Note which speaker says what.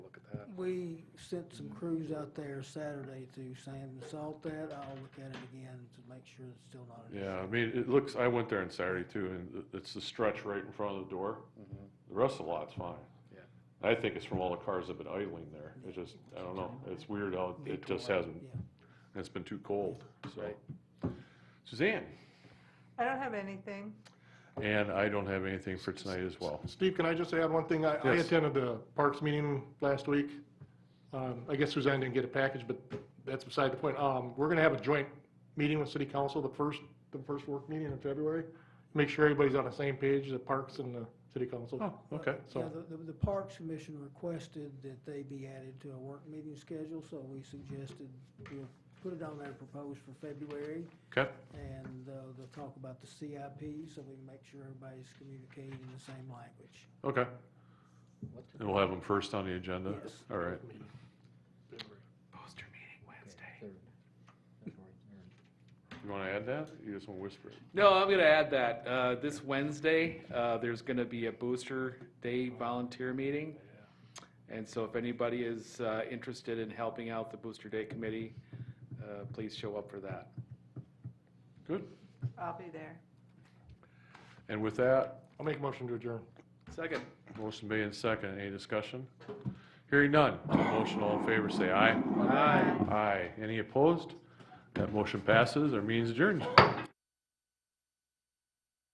Speaker 1: we sent some crews out there Saturday to sand and salt that. I'll look at it again to make sure it's still not an issue.
Speaker 2: Yeah, I mean, it looks, I went there on Saturday too, and it- it's the stretch right in front of the door. The rest of the lot's fine.
Speaker 3: Mm-hmm. Yeah.
Speaker 2: I think it's from all the cars that have been idling there. It's just, I don't know, it's weird how it just hasn't,
Speaker 1: Yeah.
Speaker 2: it's been too cold, so.
Speaker 3: Right.
Speaker 2: Suzanne,
Speaker 4: I don't have anything.
Speaker 2: and I don't have anything for tonight as well.
Speaker 5: Steve, can I just add one thing? I I
Speaker 2: Yes.
Speaker 5: attended the Parks meeting last week. Um, I guess Suzanne didn't get a package, but that's beside the point. Um, We're going to have a joint meeting with City Council, the first, the first work meeting in February. Make sure everybody's on the same page, the Parks and the City Council.
Speaker 2: Oh, okay.
Speaker 1: Yeah,
Speaker 5: So-
Speaker 1: the, the- the Parks Commission requested that they be added to a work meeting schedule, so we suggested, we'll put it on there proposed for February,
Speaker 2: Okay,
Speaker 1: and uh, they'll talk about the CIP, so we can make sure everybody's communicating in the same language.
Speaker 2: okay. And we'll have them first on the agenda?
Speaker 1: Yes.
Speaker 2: All right. You want to add that? You just want to whisper it?
Speaker 3: No, I'm gonna add that, uh, this Wednesday, uh, there's gonna be a Booster Day volunteer meeting. And so if anybody is, uh, interested in helping out the Booster Day Committee, uh, please show up for that.
Speaker 2: Good.
Speaker 4: I'll be there.
Speaker 2: And with that,
Speaker 5: I'll make a motion to adjourn.
Speaker 3: Second.
Speaker 2: Motion made and second. Any discussion? Hearing none. To the motion, all in favor, say aye.
Speaker 3: Aye.
Speaker 2: Aye. Any opposed? That motion passes. Our meeting's adjourned.